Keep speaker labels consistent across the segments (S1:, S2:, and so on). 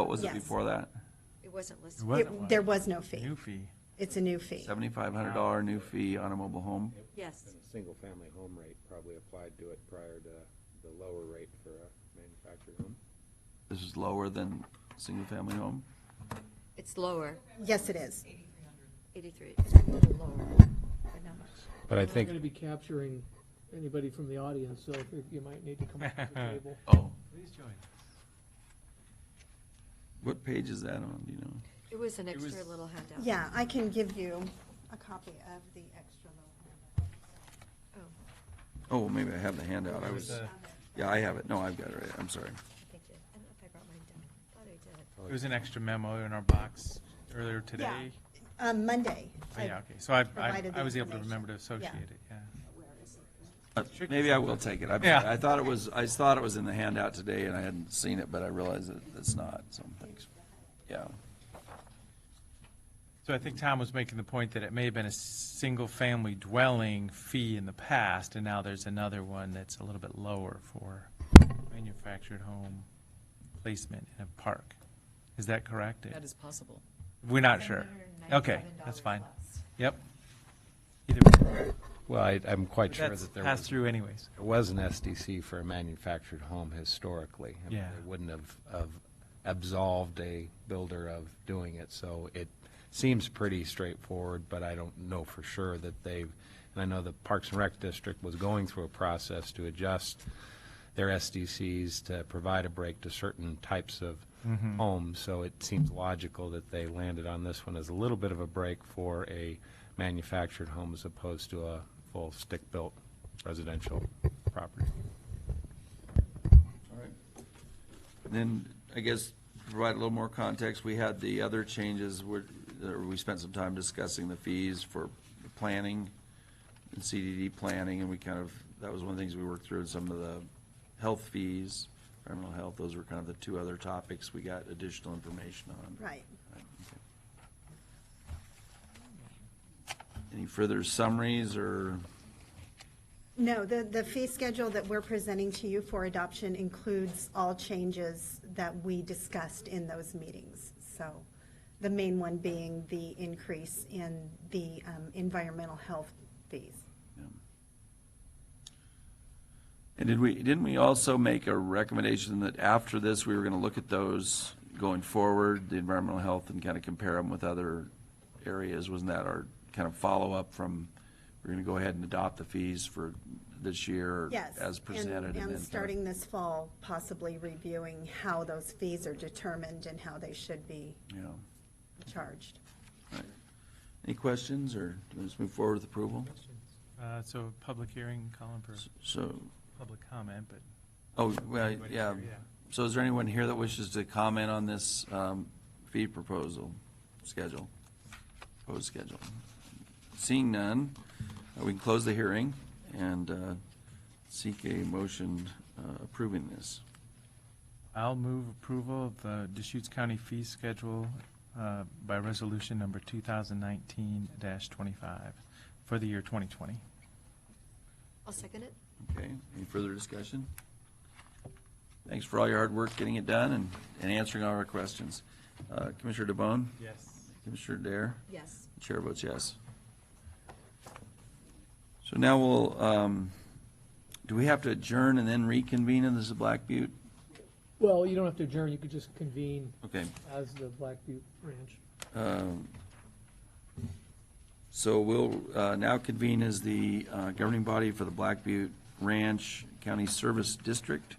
S1: What was it
S2: Yes.
S1: before that?
S2: It wasn't listed.
S3: It wasn't
S2: It-
S3: one.
S4: There was no fee.
S3: New fee.
S4: It's a new fee.
S1: Seventy-five hundred dollar new fee on a mobile home?
S2: Yes,
S5: And a single-family home rate probably applied to it prior to the lower rate for a manufactured home.
S1: This is lower than single-family home?
S2: it's lower,
S4: Yes, it is.
S2: 83. It's a little lower, but not much.
S5: But I
S6: We're going to be capturing anybody from the audience, so you- you might need to come up to the table.
S1: Oh,
S3: Please join.
S1: what page is that on, do you know?
S2: It was an
S3: was-
S2: extra little handout.
S4: Yeah, I can give you a copy of the extra little
S2: Oh,
S1: Oh, maybe I have the handout, I was, yeah, I have it, no, I've got it right, I'm sorry.
S2: I think it, I don't know if I brought mine down. I thought I did.
S3: It was an extra memo in our box earlier today.
S4: handout. Um, Monday.
S3: Oh,
S4: I-
S3: Yeah, okay, so I, I,
S4: provided the
S3: I was able to
S4: information.
S3: remember to associate
S4: Yeah.
S3: it, yeah.
S4: Where is it?
S1: Uh, Maybe I will take it,
S3: Yeah.
S1: I, I thought it was, I thought it was in the handout today and I hadn't seen it, but I realized that it's not, so thanks. Yeah,
S3: So I think Tom was making the point that it may have been a single-family dwelling fee in the past, and now there's another one that's a little bit lower for manufactured home placement in a park. Is that correct?
S7: That is possible.
S3: We're not sure. Okay, that's fine. Yep. Either way,
S5: Well, I, I'm quite sure
S3: that's
S5: that there
S3: passed
S5: was,
S3: through anyways.
S5: there was an SDC for a manufactured home historically. I mean,
S3: Yeah.
S5: They wouldn't have, have absolved a builder of doing it, so it seems pretty straightforward, but I don't know for sure that they've, and I know the Parks and Rec District was going through a process to adjust their SDCs to provide a break to certain types of homes. So it seems logical that they landed on this one as a little bit of a break for a manufactured home as opposed to a full stick-built residential property.
S1: all right. Then, I guess, to provide a little more context, we had the other changes, where, uh, we spent some time discussing the fees for planning and CDD planning, and we kind of, that was one of the things we worked through, and some of the health fees, environmental health, those were kind of the two other topics we got additional information on.
S4: Right.
S1: Any further summaries or,
S4: No, the, the fee schedule that we're presenting to you for adoption includes all changes that we discussed in those meetings. So the main one being the increase in the um, environmental health fees.
S1: yeah. and did we, didn't we also make a recommendation that after this, we were gonna look at those going forward, the environmental health, and kind of compare them with other areas? Wasn't that our kind of follow-up from, we're gonna go ahead and adopt the fees for this year?
S4: Yes.
S1: As
S4: and-
S1: presented? then kind
S4: And
S1: of-
S4: starting this fall, possibly reviewing how those fees are determined and how they should be
S1: Yeah.
S4: charged.
S1: Any questions, or let's move forward with approval?
S3: Uh, so public hearing, calling for
S1: So,
S3: public comment, but.
S1: oh, well,
S3: Anybody
S1: yeah.
S3: here, yeah.
S1: So is there anyone here that wishes to comment on this um, fee proposal, schedule, proposed schedule? Seeing none, uh, we can close the hearing and uh, seek a motion uh, approving this.
S3: I'll move approval of the Deschutes County fee schedule uh, by resolution number 2019-25 for the year 2020.
S2: I'll second it.
S1: Okay, any further discussion? Thanks for all your hard work getting it done and and answering all our questions. Uh, Commissioner DeBonne?
S3: Yes.
S1: Commissioner Dare?
S2: Yes.
S1: Chair votes yes. So now we'll, um, do we have to adjourn and then reconvene in this Black Butte?
S6: Well, you don't have to adjourn, you could just convene
S1: Okay,
S6: as the Black Butte Ranch.
S1: um, so we'll, uh, now convene as the, uh, governing body for the Black Butte Ranch County Service District.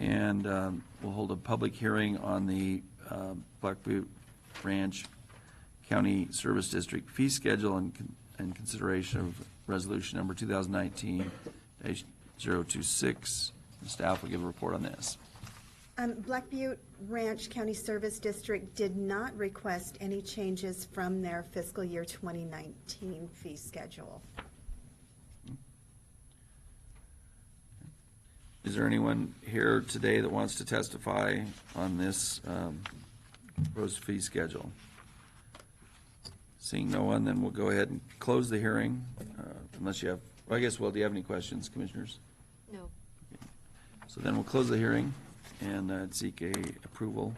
S1: And, um, we'll hold a public hearing on the, uh, Black Butte Ranch County Service District fee schedule and, con- and consideration of resolution number 2019-026. Staff will give a report on this.
S4: Um, Black Butte Ranch County Service District did not request any changes from their fiscal year 2019 fee schedule.
S1: Is there anyone here today that wants to testify on this um, proposed fee schedule? Seeing no one, then we'll go ahead and close the hearing, uh, unless you have, well, I guess, well, do you have any questions, commissioners?
S2: No.
S1: So then we'll close the hearing and uh, seek a approval